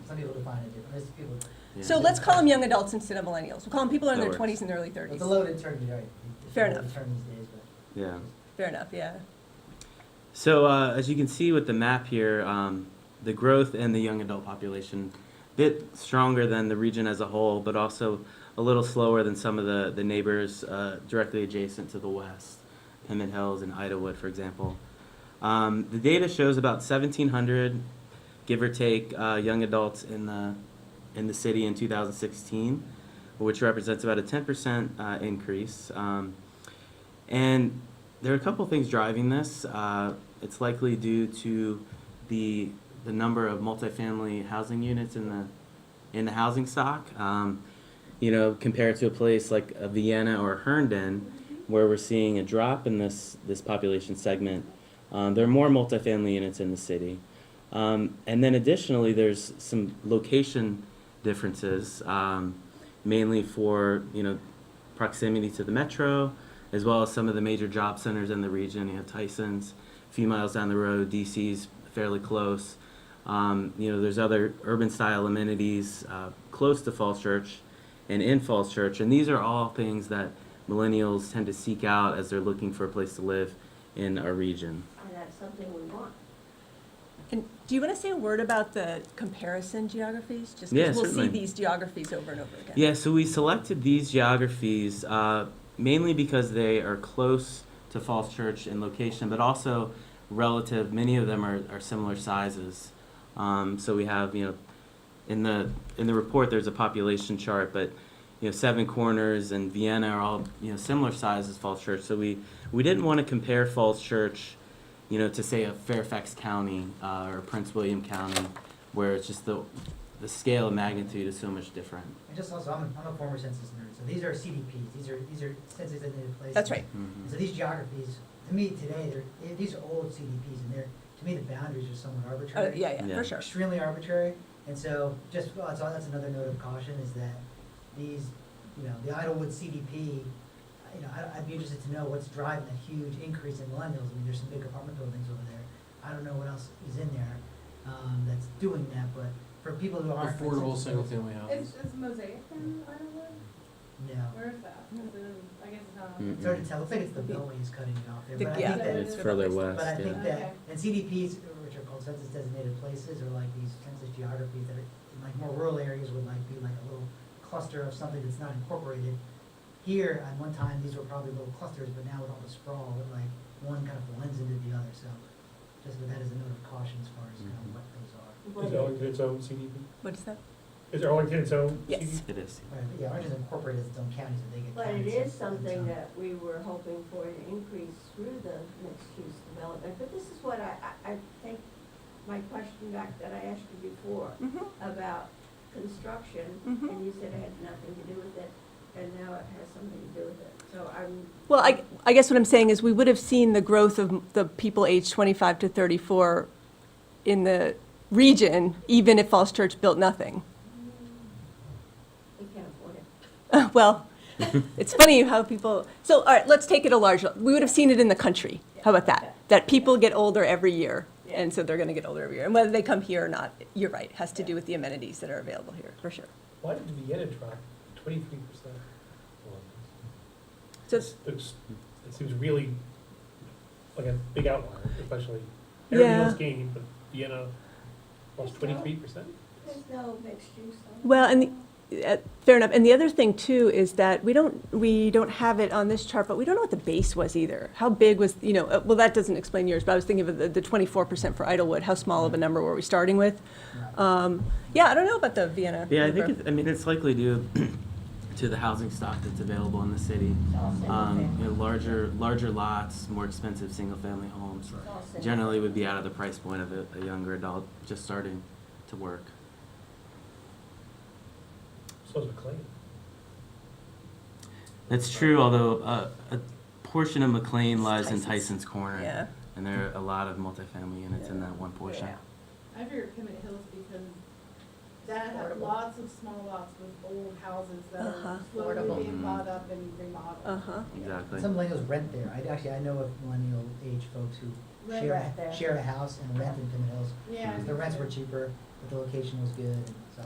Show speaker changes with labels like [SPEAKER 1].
[SPEAKER 1] some people define it different, there's people,
[SPEAKER 2] So let's call them young adults instead of millennials. We'll call them people in
[SPEAKER 3] That
[SPEAKER 2] their
[SPEAKER 3] works.
[SPEAKER 2] twenties and their early
[SPEAKER 1] it's
[SPEAKER 2] thirties.
[SPEAKER 1] a loaded term, you're right. It's a
[SPEAKER 2] Fair
[SPEAKER 1] loaded
[SPEAKER 2] enough.
[SPEAKER 1] Term these days, but.
[SPEAKER 3] Yeah.
[SPEAKER 2] Fair enough, yeah.
[SPEAKER 3] So uh, as you can see with the map here, um, the growth in the young adult population, bit stronger than the region as a whole, but also a little slower than some of the, the neighbors uh, directly adjacent to the west, Pemmon Hills and Idawood, for example. Um, the data shows about 1,700, give or take, uh, young adults in the in the city in 2016, which represents about a 10% uh, increase. Um, and there are a couple things driving this. Uh, it's likely due to the the number of multifamily housing units in the in the housing stock. Um, you know, compared to a place like a Vienna or Herndon, where we're seeing a drop in this this population segment, um, there are more multifamily units in the city. Um, and then additionally, there's some location differences, um, mainly for you know proximity to the metro, as well as some of the major job centers in the region. You have Tyson's, a few miles down the road. DC's fairly close. Um, you know, there's other urban style amenities uh, close to Falls Church and in Falls Church, and these are all things that millennials tend to seek out as they're looking for a place to live in our region.
[SPEAKER 4] And that's something we want.
[SPEAKER 2] And do you want to say a word about the comparison geographies? Just
[SPEAKER 3] Yeah,
[SPEAKER 2] because we'll see
[SPEAKER 3] certainly.
[SPEAKER 2] these geographies over and over again.
[SPEAKER 3] Yeah, so we selected these geographies uh, mainly because they are close to Falls Church in location, but also relative. Many of them are, are similar sizes. Um, so we have, you know, in the in the report there's a population chart, but you know, Seven Corners and Vienna are all you know similar size as Falls Church. So we we didn't want to compare Falls Church, you know, to say a Fairfax County uh, or Prince William County, where it's just the the scale of magnitude is so much different.
[SPEAKER 1] And just also, I'm, I'm a former census nerd, so these are CDPs, these are, these are census designated places.
[SPEAKER 2] That's right.
[SPEAKER 1] And So these geographies, to me today, they're, they- these are old CDPs and they're, to me, the boundaries are somewhat
[SPEAKER 2] Oh,
[SPEAKER 1] arbitrary.
[SPEAKER 2] yeah, yeah,
[SPEAKER 3] Yeah.
[SPEAKER 2] for sure.
[SPEAKER 1] Extremely arbitrary, and so just, well, that's, that's another note of caution is that these, you know, the Idlewood CDP, uh, you know, I, I'd be interested to know what's driving that huge increase in millennials. I mean, there's some big apartment buildings over there. I don't know what else is in there, um, that's doing that, but for people who aren't.
[SPEAKER 5] Affordable
[SPEAKER 1] census-
[SPEAKER 5] single-family
[SPEAKER 6] Is, is
[SPEAKER 5] houses.
[SPEAKER 6] Mosaic in Ireland?
[SPEAKER 1] No.
[SPEAKER 6] Where is that? Is it in, I guess it's not.
[SPEAKER 3] Mm.
[SPEAKER 1] It's hard to tell, looks like it's the Beltway is cutting it off there, but I
[SPEAKER 2] Yeah.
[SPEAKER 1] think that,
[SPEAKER 3] It's further west,
[SPEAKER 1] but I think
[SPEAKER 3] yeah.
[SPEAKER 1] that, and CDPs, which are called census designated places, are like these census geographies that are, in like more rural areas would like be like a little cluster of something that's not incorporated. Here, at one time, these were probably little clusters, but now with all the sprawl, it like, one kind of blends into the other, so just with that as a note of caution as far as kind of
[SPEAKER 3] Mhm.
[SPEAKER 1] what those are.
[SPEAKER 4] But-
[SPEAKER 7] Is Arlington its own CDP?
[SPEAKER 2] What is that?
[SPEAKER 7] Is Arlington its own?
[SPEAKER 2] Yes.
[SPEAKER 7] CDP?
[SPEAKER 3] It is.
[SPEAKER 1] Right, but yeah, ours is incorporated as its own county, so they get
[SPEAKER 4] But
[SPEAKER 1] counted
[SPEAKER 4] it is
[SPEAKER 1] separate and
[SPEAKER 4] something
[SPEAKER 1] so-
[SPEAKER 4] that we were hoping for an increase through the mixed-use development. But this is what I, I, I think, my question back that I asked you before
[SPEAKER 2] hmm
[SPEAKER 4] about construction,
[SPEAKER 2] Mhm.
[SPEAKER 4] and you said it had nothing to do with it, and now it has something to do with it. So I'm.
[SPEAKER 2] Well, I, I guess what I'm saying is we would have seen the growth of the people aged 25 to 34 in the region, even if Falls Church built nothing.
[SPEAKER 4] We can't afford it.
[SPEAKER 2] Well, it's funny how people, so, all right, let's take it a large, we would have seen it in the country. How about that? That people get older every year, and so they're gonna get older every year. And whether they come here or not, you're right, has to do with the amenities that are available here, for sure.
[SPEAKER 7] Why did Vienna drop twenty-three percent?
[SPEAKER 2] So,
[SPEAKER 7] It seems really like a big outlier, especially, everything
[SPEAKER 2] Yeah.
[SPEAKER 7] else gained, but Vienna lost twenty-three percent?
[SPEAKER 4] There's no mixed-use. on it.
[SPEAKER 2] well, and, the- uh, fair enough, and the other thing too is that we don't, we don't have it on this chart, but we don't know what the base was either. How big was, you know, uh, well, that doesn't explain yours, but I was thinking of the, the twenty-four percent for Idlewood, how small of a number were we starting with? Um, yeah, I don't know about the Vienna.
[SPEAKER 3] Yeah, I
[SPEAKER 2] number.
[SPEAKER 3] think, it- I mean, it's likely due to the housing stock that's available in the city.
[SPEAKER 4] It's all single
[SPEAKER 3] Um,
[SPEAKER 4] family.
[SPEAKER 3] you know, larger, larger lots, more expensive single-family homes
[SPEAKER 4] It's all single
[SPEAKER 3] generally would be out of the price point of a, a younger adult just starting to work.
[SPEAKER 7] So is McLean.
[SPEAKER 3] That's true, although, uh, a portion of McLean lies in
[SPEAKER 2] Tyson's.
[SPEAKER 3] Tyson's Corner.
[SPEAKER 2] Yeah.
[SPEAKER 3] And there are a lot of multifamily units in that one portion.
[SPEAKER 4] Yeah.
[SPEAKER 6] I figured Pemmon Hills because that had
[SPEAKER 4] Affordable.
[SPEAKER 6] lots of small lots with old houses that
[SPEAKER 2] Uh-huh.
[SPEAKER 6] are
[SPEAKER 4] Affordable.
[SPEAKER 6] slowly being
[SPEAKER 3] Mm.
[SPEAKER 6] bought up and remodeled.
[SPEAKER 2] Uh-huh.
[SPEAKER 3] Exactly.
[SPEAKER 1] Some millennials rent there. I, actually, I know of millennial age folks who
[SPEAKER 6] Rent
[SPEAKER 1] share,
[SPEAKER 4] right there.
[SPEAKER 1] a- share a house and rent in Pin Hills.
[SPEAKER 6] Yeah.
[SPEAKER 1] Because the rents were cheaper but the location was good, and so